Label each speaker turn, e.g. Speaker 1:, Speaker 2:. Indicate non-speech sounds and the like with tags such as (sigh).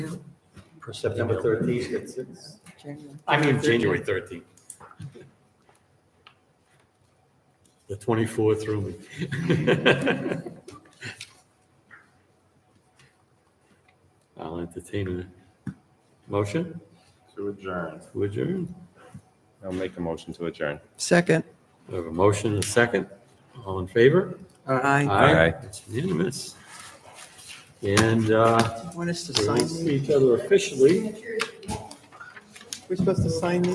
Speaker 1: for September 13th. It's- it's- I mean, January 13th. The 24 threw me. (laughs) I'll entertain a motion
Speaker 2: to adjourn.
Speaker 1: to adjourn.
Speaker 2: I'll make a motion to adjourn.
Speaker 3: Second.
Speaker 1: I have a motion and a second. All in favor?
Speaker 3: I
Speaker 2: Aye.
Speaker 1: It's unanimous. And uh,
Speaker 3: want us to
Speaker 1: we'll
Speaker 3: sign these?
Speaker 1: see each other officially.
Speaker 3: We're supposed to sign these?